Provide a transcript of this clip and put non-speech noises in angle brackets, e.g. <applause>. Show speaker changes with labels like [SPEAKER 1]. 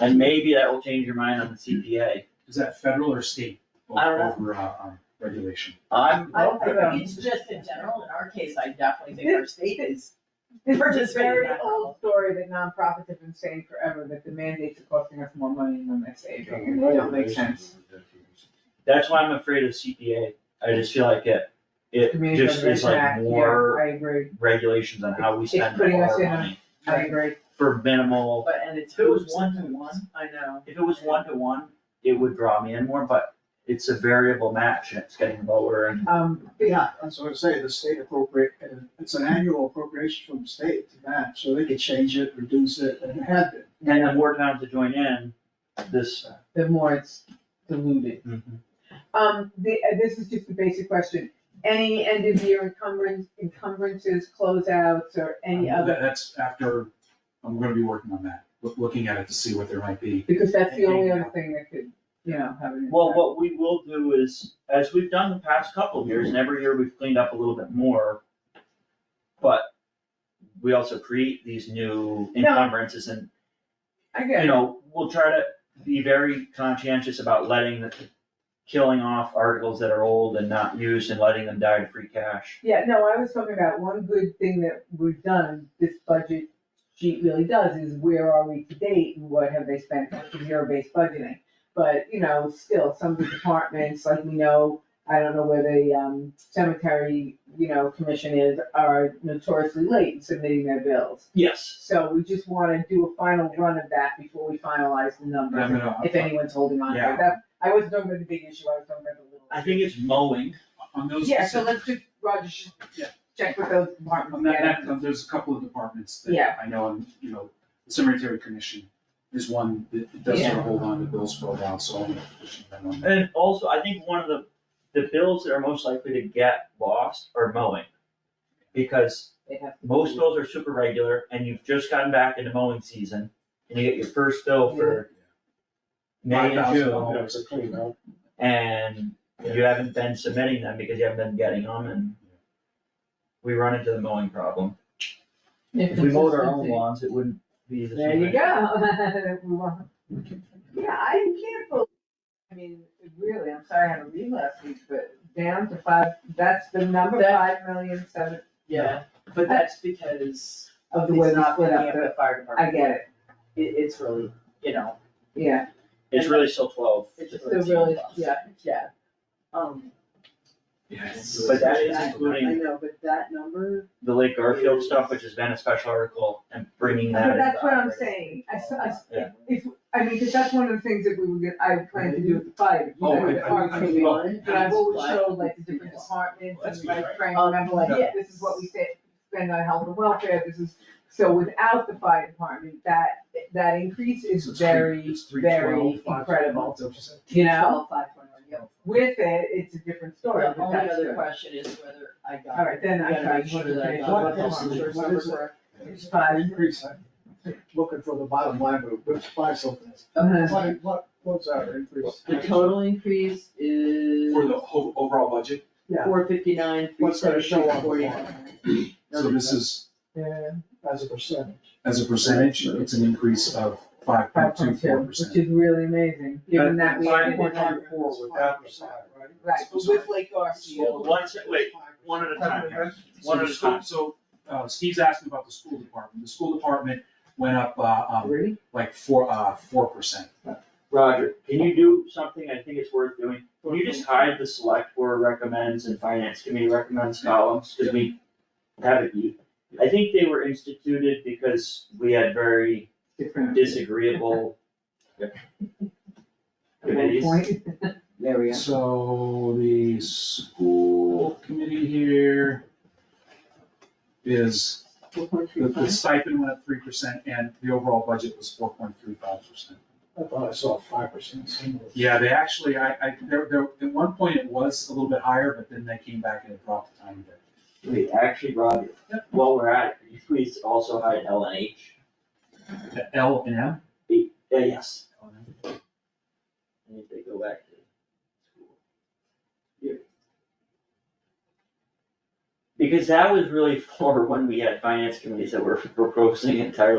[SPEAKER 1] And maybe that will change your mind on the CPA.
[SPEAKER 2] Is that federal or state o-
[SPEAKER 1] I don't know.
[SPEAKER 2] over, uh, um, regulation?
[SPEAKER 1] I'm,
[SPEAKER 3] I don't think it's just in general, in our case, I definitely think our state is
[SPEAKER 4] It's a
[SPEAKER 3] participating in
[SPEAKER 4] very
[SPEAKER 3] that problem.
[SPEAKER 4] old story that nonprofits have been saying forever, that the mandates are costing us more money than they're saving, and it don't make sense.
[SPEAKER 1] that's why I'm afraid of CPA. I just feel like it, it
[SPEAKER 4] Community
[SPEAKER 1] just is
[SPEAKER 4] Preservation
[SPEAKER 1] like
[SPEAKER 4] Act, yeah,
[SPEAKER 1] more
[SPEAKER 4] I agree,
[SPEAKER 1] regulations on how we
[SPEAKER 4] It's
[SPEAKER 1] spend our
[SPEAKER 4] putting us
[SPEAKER 1] money.
[SPEAKER 4] in a- I agree.
[SPEAKER 1] For minimal,
[SPEAKER 3] But, and it's
[SPEAKER 1] If it was
[SPEAKER 3] who's,
[SPEAKER 1] one to one,
[SPEAKER 3] I know,
[SPEAKER 1] if it was one to one, it would draw me in more, but it's a variable match and it's getting lower and
[SPEAKER 4] Um,
[SPEAKER 5] Yeah, that's what I say, the state appropriate, and it's an annual appropriation from the state to match, so they could change it, reduce it, and it had been.
[SPEAKER 1] and the more towns that join in, this.
[SPEAKER 4] the more it's diluted.
[SPEAKER 1] Mm-hmm.
[SPEAKER 4] Um, the, uh, this is just a basic question, any end of year encumbrance, encumbrances, closeouts, or any
[SPEAKER 2] Um,
[SPEAKER 4] other,
[SPEAKER 2] that- That's after, I'm gonna be working on that, loo- looking at it to see what there might be.
[SPEAKER 4] because that's the only other thing that could, you know, have an
[SPEAKER 1] Well,
[SPEAKER 4] impact.
[SPEAKER 1] what we will do is, as we've done the past couple of years, and every year we've cleaned up a little bit more. But we also create these new
[SPEAKER 4] No.
[SPEAKER 1] encumbrances and,
[SPEAKER 4] I get
[SPEAKER 1] you
[SPEAKER 4] it,
[SPEAKER 1] know, we'll try to be very conscientious about letting the, killing off articles that are old and not used and letting them die to free cash.
[SPEAKER 4] yeah, no, I was talking about one good thing that we've done, this budget sheet really does, is where are we to date, and what have they spent, zero-based budgeting. But, you know, still, some of the departments, like we know, I don't know where the, um, cemetery, you know, commission is, are notoriously late in submitting their bills.
[SPEAKER 1] Yes.
[SPEAKER 4] So we just wanna do a final run of that before we finalize the
[SPEAKER 2] I'm gonna-
[SPEAKER 4] numbers,
[SPEAKER 2] I'm-
[SPEAKER 4] if anyone's holding on to
[SPEAKER 2] Yeah.
[SPEAKER 4] it. That, I wasn't talking about the big issue, I was talking about the little.
[SPEAKER 1] I think it's mowing.
[SPEAKER 2] On those.
[SPEAKER 4] Yeah, so
[SPEAKER 2] specific-
[SPEAKER 4] let's just, Roger, should
[SPEAKER 2] Yeah.
[SPEAKER 4] check with those
[SPEAKER 2] On
[SPEAKER 4] departments.
[SPEAKER 2] that,
[SPEAKER 4] yeah.
[SPEAKER 2] that- there's a couple of departments that
[SPEAKER 4] Yeah.
[SPEAKER 2] I know, and, you know, the cemetery commission is one that does sort
[SPEAKER 4] Yeah.
[SPEAKER 2] of hold on to bills for a while, so I'm gonna push them on that.
[SPEAKER 1] And also, I think one of the, the bills that are most likely to get lost are mowing. Because
[SPEAKER 4] They have to-
[SPEAKER 1] Most bills are super regular and you've just gotten back into mowing season and you get your first bill for May and June.
[SPEAKER 2] $5,000 a clean up.
[SPEAKER 1] And you haven't been submitting them because you haven't been getting them and we run into the mowing problem. If we mowed our own
[SPEAKER 4] <laughs>
[SPEAKER 1] lawns, it wouldn't be the
[SPEAKER 4] There
[SPEAKER 1] same.
[SPEAKER 4] you go. We want- Yeah, I can't believe, I mean, really, I'm sorry I had a read last week, but down to five, that's the number,
[SPEAKER 3] That-
[SPEAKER 4] five million seven
[SPEAKER 3] yeah, but that's because
[SPEAKER 4] of
[SPEAKER 3] it's
[SPEAKER 4] the way we
[SPEAKER 3] not
[SPEAKER 4] split
[SPEAKER 3] looking
[SPEAKER 4] up
[SPEAKER 3] at
[SPEAKER 4] the,
[SPEAKER 3] the fire
[SPEAKER 4] I
[SPEAKER 3] department,
[SPEAKER 4] get it,
[SPEAKER 3] it, it's really, you know,
[SPEAKER 4] yeah,
[SPEAKER 1] It's really still twelve.
[SPEAKER 3] it's
[SPEAKER 4] so really, yeah, yeah.
[SPEAKER 3] Um,
[SPEAKER 2] Yeah, it's-
[SPEAKER 1] But that is
[SPEAKER 3] That- I
[SPEAKER 1] including
[SPEAKER 3] know, but that number,
[SPEAKER 1] the Lake Garfield stuff, which has been a special article and bringing that
[SPEAKER 4] But
[SPEAKER 1] into
[SPEAKER 4] that's
[SPEAKER 1] the
[SPEAKER 4] what I'm
[SPEAKER 1] operating.
[SPEAKER 4] saying, I, s- I s-
[SPEAKER 1] Yeah.
[SPEAKER 4] if, I mean, 'cause that's one of the things that we were, gonna- I plan to do with the fire, you
[SPEAKER 2] Oh,
[SPEAKER 4] know,
[SPEAKER 2] I-
[SPEAKER 4] the
[SPEAKER 2] I-
[SPEAKER 4] fire
[SPEAKER 2] I-
[SPEAKER 4] training.
[SPEAKER 2] well,
[SPEAKER 4] And I've always
[SPEAKER 3] I-
[SPEAKER 4] showed like the different departments,
[SPEAKER 2] That's
[SPEAKER 4] and like
[SPEAKER 2] right.
[SPEAKER 4] trying to remember like,
[SPEAKER 3] Yes.
[SPEAKER 4] this is what we said, spend on health and welfare, this is, so without the fire department, that, that increase is
[SPEAKER 2] it's three-
[SPEAKER 4] very,
[SPEAKER 2] it's three
[SPEAKER 4] very
[SPEAKER 2] twelve, five
[SPEAKER 4] incredible,
[SPEAKER 2] twelve, don't you say?
[SPEAKER 4] you know?
[SPEAKER 3] twelve, five, twenty-one, yeah.
[SPEAKER 4] With it, it's a different story,
[SPEAKER 3] The
[SPEAKER 4] but
[SPEAKER 3] only
[SPEAKER 4] that's
[SPEAKER 3] other
[SPEAKER 4] good.
[SPEAKER 3] question is whether I got.
[SPEAKER 4] All right, then I
[SPEAKER 3] You gotta
[SPEAKER 4] tried
[SPEAKER 3] make sure
[SPEAKER 4] to
[SPEAKER 3] that I
[SPEAKER 4] finish
[SPEAKER 3] got
[SPEAKER 5] what
[SPEAKER 3] the
[SPEAKER 5] is
[SPEAKER 3] health
[SPEAKER 5] it?
[SPEAKER 3] insurance
[SPEAKER 5] What
[SPEAKER 3] number
[SPEAKER 5] is it?
[SPEAKER 3] correct.
[SPEAKER 4] It's five,
[SPEAKER 5] Increase, I'm looking for the bottom line, but which five something.
[SPEAKER 4] Uh-huh.
[SPEAKER 5] What, what, what's our increase?
[SPEAKER 3] The total increase is
[SPEAKER 2] For the whole overall budget,
[SPEAKER 5] Yeah.
[SPEAKER 3] four fifty-nine, three
[SPEAKER 5] What's gonna show
[SPEAKER 3] seventy-six,
[SPEAKER 5] on the
[SPEAKER 3] forty-nine.
[SPEAKER 5] line
[SPEAKER 2] so this is,
[SPEAKER 4] yeah,
[SPEAKER 5] as a percentage?
[SPEAKER 2] as a percentage, it's an increase of five point
[SPEAKER 4] five
[SPEAKER 2] two
[SPEAKER 4] point
[SPEAKER 2] four
[SPEAKER 4] two, which
[SPEAKER 2] percent.
[SPEAKER 4] is really amazing, given that we.
[SPEAKER 1] Five
[SPEAKER 4] ended
[SPEAKER 1] point
[SPEAKER 4] up-
[SPEAKER 5] Four without percent, right?
[SPEAKER 4] Right, but with Lake
[SPEAKER 1] Well,
[SPEAKER 4] Garfield.
[SPEAKER 1] one se- wait, one at a time here. One
[SPEAKER 2] So
[SPEAKER 1] at
[SPEAKER 2] the
[SPEAKER 1] a
[SPEAKER 2] school,
[SPEAKER 1] time.
[SPEAKER 2] so, uh, Steve's asking about the school department, the school department went up, uh, um,
[SPEAKER 3] Three?
[SPEAKER 2] like four, uh, four percent.
[SPEAKER 1] Roger, can you do something I think it's worth doing? Can you just hide the select board recommends and finance committee recommends columns, cause we have it. you- I think they were instituted because we had very
[SPEAKER 4] Different.
[SPEAKER 1] disagreeable. Committees.
[SPEAKER 3] There we
[SPEAKER 2] So the school committee here is,
[SPEAKER 3] Four point
[SPEAKER 2] the- the stipend went up three percent and the overall budget was four point three five percent.
[SPEAKER 5] I thought I saw five percent.
[SPEAKER 2] Yeah, they actually, I, I, there, there, at one point it was a little bit higher, but then they came back and it dropped a tiny bit.
[SPEAKER 1] Wait, actually, Roger, while we're at it, could you please also hide L and H?
[SPEAKER 2] The L and M?
[SPEAKER 1] Yeah, yes. I need to go back to school. Here. <laughs> Because that was really for when we had finance committees that were proposing entirely